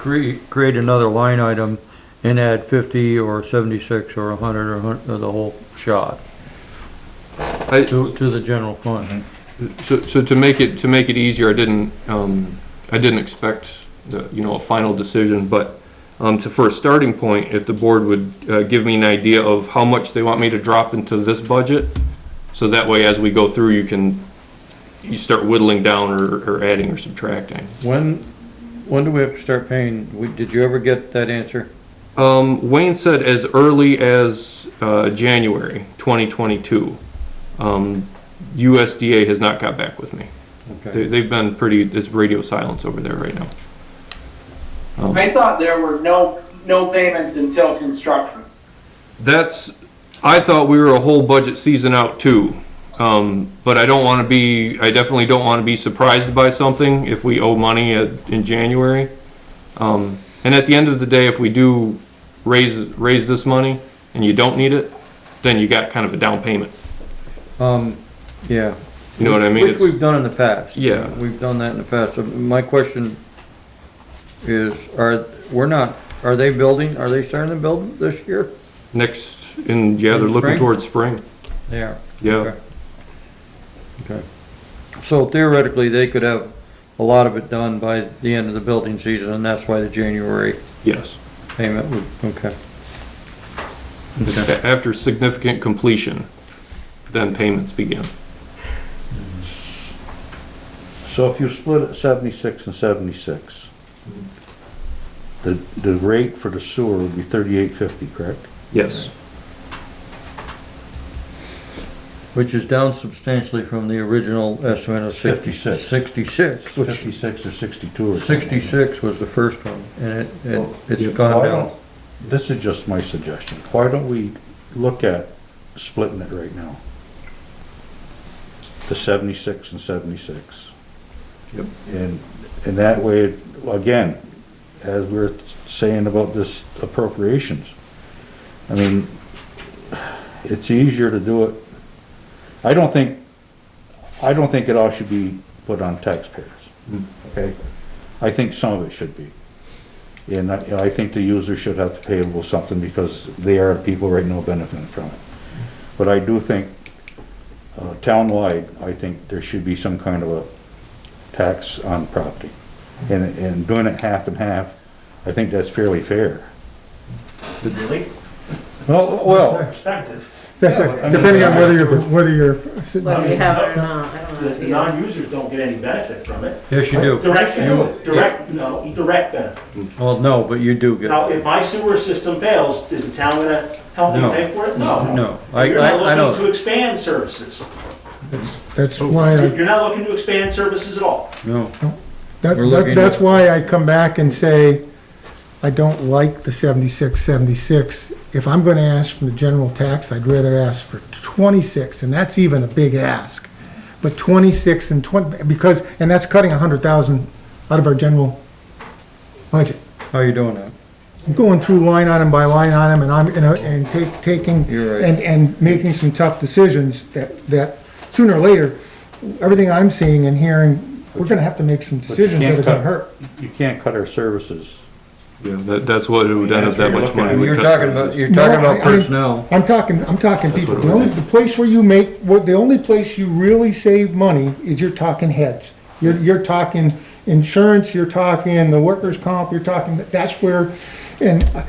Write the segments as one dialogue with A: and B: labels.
A: cre- create another line item and add fifty or seventy-six or a hundred or hun- or the whole shot
B: I,
A: to, to the general fund.
B: so, so to make it, to make it easier, I didn't, um, I didn't expect the, you know, a final decision, but, um, to, for a starting point, if the board would, uh, give me an idea of how much they want me to drop into this budget, so that way as we go through, you can, you start whittling down or, or adding or subtracting.
A: When, when do we have to start paying? We- Did you ever get that answer?
B: Um, Wayne said as early as uh, January 2022. Um, USDA has not got back with me. They,
A: Okay.
B: they've been pretty. It's radio silence over there right now. Um,
C: I thought there were no, no payments until construction.
B: that's. I thought we were a whole budget season out too, um, but I don't want to be. I definitely don't want to be surprised by something if we owe money at, in January. Um, and at the end of the day, if we do raise raise this money and you don't need it, then you got kind of a down payment.
A: Um, yeah.
B: You know what I
A: Which-
B: mean?
A: Which
B: It's-
A: we've done in the past.
B: Yeah.
A: We've done that in the past. So My question is, are, we're not, are they building, are they starting to build this year?
B: Next, and yeah,
A: In
B: they're looking
A: spring?
B: towards spring.
A: They are.
B: Yeah,
A: Okay. Okay. So theoretically, they could have a lot of it done by the end of the building season, and that's why the January
B: yes.
A: payment would, okay. Okay.
B: A- After significant completion, then payments begin.
D: So if you split it seventy-six and seventy-six, the, the rate for the sewer would be thirty-eight fifty, correct?
B: Yes.
A: Which is down substantially from the original estimate of sixty,
D: 56.
A: sixty-six, which,
D: Fifty-six or sixty-two or something.
A: sixty-six was the first one, and it, it, it's
D: Yeah,
A: gone
D: why
A: down.
D: don't- This is just my suggestion. Why don't we look at splitting it right now? The seventy-six and seventy-six.
B: Yep.
D: And, and that way, again, as we we're saying about this appropriations, I mean, it's easier to do it. I don't think, I don't think it all should be put on taxpayers,
A: Hmm.
D: okay? I think some of it should be. And I, I think the user should have to pay a little something because they are people right now benefiting from it. But I do think, uh, townwide, I think there should be some kind of a tax on property. And, and doing it half and half, I think that's fairly fair.
E: Really?
D: Well, well,
E: Perspective.
F: That's
D: Yeah, I
F: right,
D: mean-
F: depending on whether you're, whether you're.
G: Whether you have it or not, I
E: The,
G: don't
E: the
G: know.
E: non-users don't get any benefit from it.
A: Yes, you do.
E: Direct, direct, no, direct benefit.
A: Well, no, but you do get,
E: Now, if my sewer system fails, is the town gonna help
A: No.
E: me pay for it? No.
A: no, I,
E: You're
A: I, I
E: not looking
A: know,
E: to expand services.
F: That's
A: Oh.
F: why, I-
E: You're not looking to expand services at all.
A: no.
F: that,
A: We're looking
F: that- that's
A: at-
F: why I come back and say, I don't like the seventy-six, seventy-six. If I'm gonna ask from the general tax, I'd rather ask for twenty-six, and that's even a big ask. But twenty-six and twenty, because, and that's cutting a hundred thousand out of our general budget.
A: How you doing that?
F: I'm going through line item by line item, and I'm, you know, and take, taking,
A: You're right.
F: and, and making some tough decisions that, that sooner or later, everything I'm seeing and hearing, we're gonna have to make some
D: but you
F: decisions that
D: can't
F: are gonna
D: cut-
F: hurt.
D: You can't cut our services.
B: Yeah, that, that's what it would end up, that much money. would
A: You're
B: cut
A: talking about,
B: services.
A: you're talking
F: No, I-
A: about
F: I-
A: personnel.
F: I'm talking, I'm talking people,
B: what
F: the
B: we're
F: only,
B: doing.
F: the place where you make, where, the only place you really save money is you're talking heads. You're, you're talking insurance, you're talking the workers' comp, you're talking, that's where, and uh,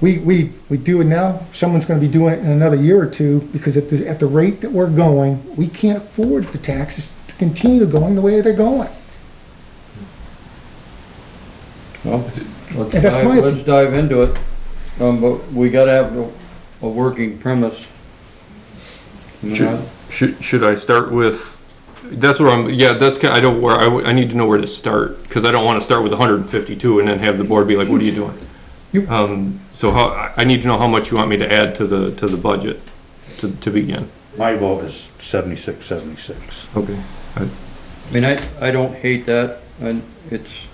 F: we, we, we do it now, someone's gonna be doing it in another year or two, because at the, at the rate that we're going, we can't afford the taxes to continue going the way they're going.
A: Let's
F: And that's
A: dive,
F: my
A: let's dive into it, um, but we gotta have a, a working premise. I mean,
B: Should, should, should I start with, that's where I'm, yeah, that's, ki- I don't, where, I, w- I need to know where to start, because I don't want to start with hundred and fifty-two and then have the board be like, what are you
F: You-
B: doing? Um, so how, I- I need to know how much you want me to add to the, to the budget to, to begin.
D: My vote is seventy-six, seventy-six.
B: Okay.
A: I mean, I, I don't hate that, and it's,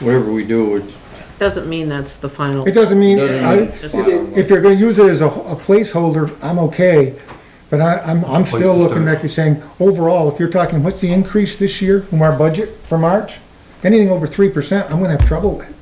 A: whatever we do, it's,
G: Doesn't mean that's the final.
F: It doesn't mean,
A: Doesn't
F: I,
A: mean-
G: Just-
F: if you're gonna use it as a, a placeholder, I'm okay. But I, I'm, I'm
B: Place
F: still
B: to
F: looking,
B: start.
F: like you're saying, overall, if you're talking, what's the increase this year from our budget for March? Anything over three percent, I'm gonna have trouble with.